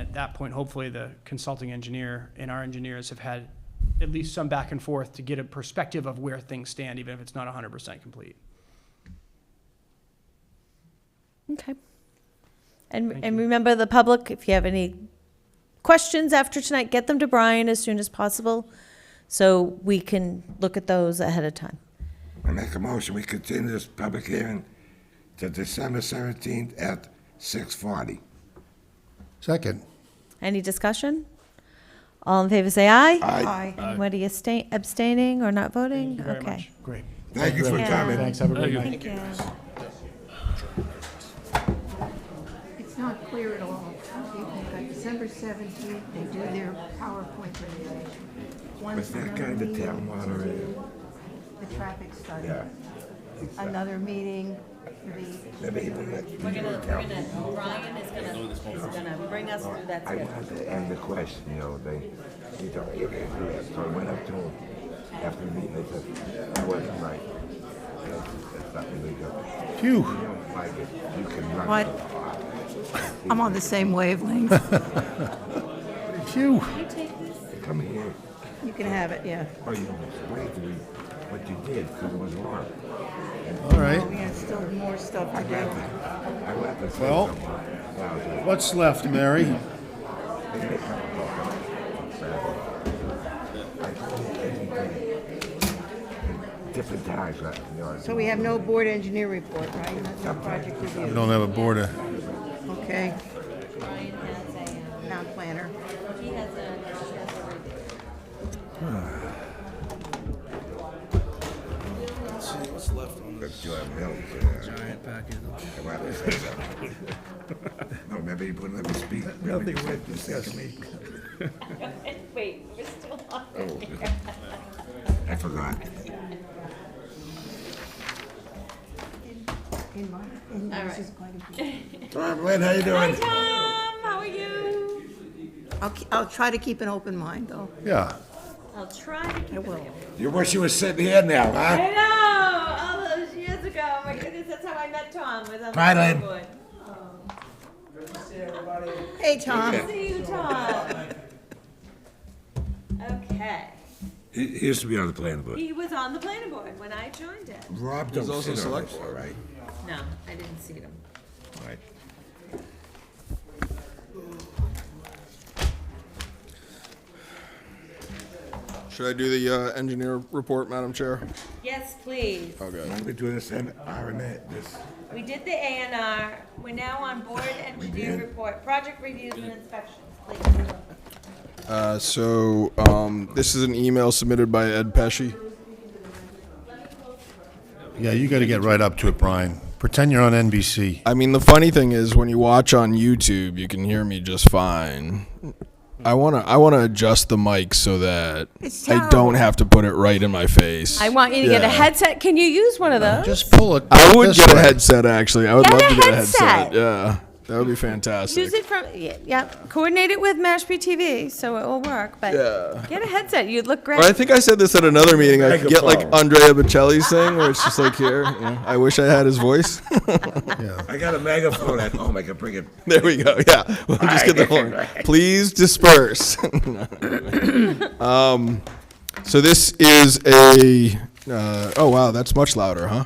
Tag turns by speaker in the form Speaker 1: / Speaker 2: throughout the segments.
Speaker 1: at that point, hopefully, the consulting engineer and our engineers have had at least some back and forth to get a perspective of where things stand, even if it's not hundred percent complete.
Speaker 2: Okay. And,
Speaker 1: Thank
Speaker 2: and
Speaker 1: you.
Speaker 2: remember the public, if you have any questions after tonight, get them to Brian as soon as possible so we can look at those ahead of time.
Speaker 3: I make a motion, we continue this public hearing to December seventeenth at six forty.
Speaker 4: Second.
Speaker 2: Any discussion? All in favor, say aye.
Speaker 3: Aye.
Speaker 2: Anybody abstain- abstaining or not voting?
Speaker 1: Thank you very
Speaker 2: Okay.
Speaker 1: much.
Speaker 4: Great.
Speaker 3: Thank you for
Speaker 2: Yeah.
Speaker 3: coming.
Speaker 4: Thanks, have a great night.
Speaker 5: It's not clear at all. They've got December seventeenth, they do their PowerPoint presentation. One
Speaker 3: Was that guy the town moderator?
Speaker 5: The traffic study.
Speaker 3: Yeah.
Speaker 5: Another meeting for the,
Speaker 3: Maybe he will let you tell.
Speaker 2: Brian is gonna, bring us through that
Speaker 3: I wanted to end the question the other day. He told me, okay, do that. So I went up to him after the meeting, I said, I wasn't right. That's that's not illegal.
Speaker 4: Phew.
Speaker 3: You don't like it, you can run.
Speaker 5: What? I'm on the same wavelength.
Speaker 4: Phew.
Speaker 3: Come here.
Speaker 5: You can have it, yeah.
Speaker 3: Oh, you explained to me what you did, because it was wrong.
Speaker 4: All right.
Speaker 5: We have still more stuff to do.
Speaker 3: I went to say
Speaker 4: Well-
Speaker 3: something. Now, it's like,
Speaker 4: What's left, Mary?
Speaker 3: Different times, like, you know.
Speaker 5: So we have no board engineer report, right? No project
Speaker 4: We
Speaker 5: review.
Speaker 4: don't have a border.
Speaker 5: Okay,
Speaker 6: Brian has a, um,
Speaker 5: town planner.
Speaker 6: he has a, he has a review.
Speaker 3: Let's do our milk, uh, I wanted to say something. No, remember you wouldn't let me speak. Nothing worth discussing.
Speaker 6: Wait, we're still on.
Speaker 3: Oh. I forgot.
Speaker 5: In my, in yours is quite a bit.
Speaker 3: Tom Lynn, how you
Speaker 6: Hi,
Speaker 3: doing?
Speaker 6: Tom, how are you?
Speaker 5: I'll, ke- I'll try to keep an open mind, though.
Speaker 4: Yeah.
Speaker 6: I'll try to keep
Speaker 5: I
Speaker 6: it.
Speaker 5: will.
Speaker 3: You wish you were sitting here now, huh?
Speaker 6: I know, all those years ago, oh my goodness, that's how I met Tom, was on the
Speaker 3: Bye, Lynn.
Speaker 6: school board.
Speaker 5: Hey, Tom.
Speaker 6: See you, Tom. Okay,
Speaker 3: He he used to be on the planning board.
Speaker 6: he was on the planning board when I joined it.
Speaker 3: Rob don't sit on this, all right?
Speaker 6: No, I didn't see them.
Speaker 3: All right.
Speaker 7: Should I do the uh, engineer report, Madam Chair?
Speaker 6: Yes, please.
Speaker 3: Why don't we do this in R and A, this,
Speaker 6: We did the A and R, we're now on board engineer
Speaker 3: did.
Speaker 6: report, project reviews and inspections, please.
Speaker 7: Uh, so um, this is an email submitted by Ed Pesci.
Speaker 4: Yeah, you gotta get right up to it, Brian. Pretend you're on NBC.
Speaker 7: I mean, the funny thing is when you watch on YouTube, you can hear me just fine. I wanna I wanna adjust the mic so that
Speaker 5: It's
Speaker 7: I don't have to put it right in my face.
Speaker 2: I want you to get a
Speaker 7: Yeah.
Speaker 2: headset. Can you use one of those?
Speaker 4: Just pull it.
Speaker 7: I would
Speaker 4: this
Speaker 7: get a
Speaker 4: way.
Speaker 7: headset actually. I would
Speaker 2: Get
Speaker 7: love
Speaker 2: a
Speaker 7: to get a
Speaker 2: headset.
Speaker 7: headset. Yeah, that would be
Speaker 2: Use
Speaker 7: fantastic.
Speaker 2: it from, yeah, yeah, coordinate it with Mashpee TV, so it will work, but
Speaker 7: Yeah.
Speaker 2: get a headset, you'd look great.
Speaker 7: Or I think I said this at another meeting. I could get like
Speaker 3: Megaphone.
Speaker 7: Andrea Bocelli's thing, where it's just like here. yeah, I wish I had his voice.
Speaker 3: I got a megaphone at home, I can bring it.
Speaker 7: There we go. Yeah, we'll just get the horn. Please disperse. um, so this is a. Uh, oh wow, that's much louder, huh?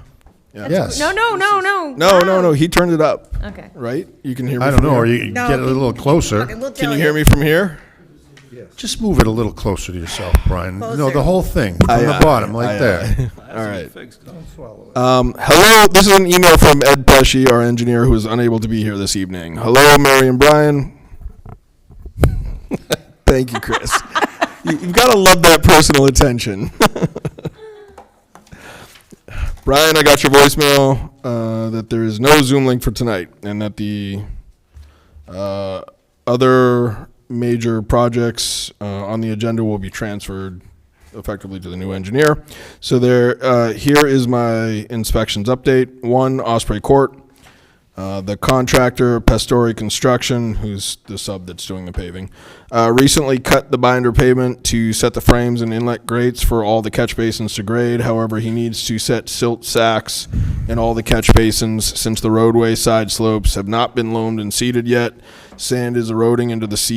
Speaker 4: Yes.
Speaker 2: No, no, no, no.
Speaker 7: No, no, no. He turned it up.
Speaker 2: Okay.
Speaker 7: Right? You can hear me.
Speaker 4: I don't
Speaker 7: from
Speaker 4: know, or
Speaker 7: here?
Speaker 4: you get a little
Speaker 5: Okay,
Speaker 4: closer.
Speaker 5: we'll
Speaker 7: Can
Speaker 5: tell
Speaker 7: you hear me from here?
Speaker 4: Just move it a little closer to yourself, Brian. No, the
Speaker 5: Closer.
Speaker 4: whole thing, from
Speaker 7: Aye,
Speaker 4: the
Speaker 7: aye,
Speaker 4: bottom,
Speaker 7: aye,
Speaker 4: right there.
Speaker 7: All right. Um, hello, this is an email from Ed Pesci, our engineer, who is unable to be here this evening. Hello, Mary and Brian. Thank you, Chris. You- You've got to love that personal attention. Brian, I got your voicemail uh, that there is no Zoom link for tonight and that the uh, other major projects uh, on the agenda will be transferred effectively to the new engineer. So there, uh, here is my inspections update. One, Osprey Court. Uh, the contractor, Pastori Construction, who's the sub that's doing the paving, uh, recently cut the binder pavement to set the frames and inlet grates for all the catch basins to grade. However, he needs to set silt sacks in all the catch basins since the roadway side slopes have not been loamed and seeded yet. Sand is eroding into the seed.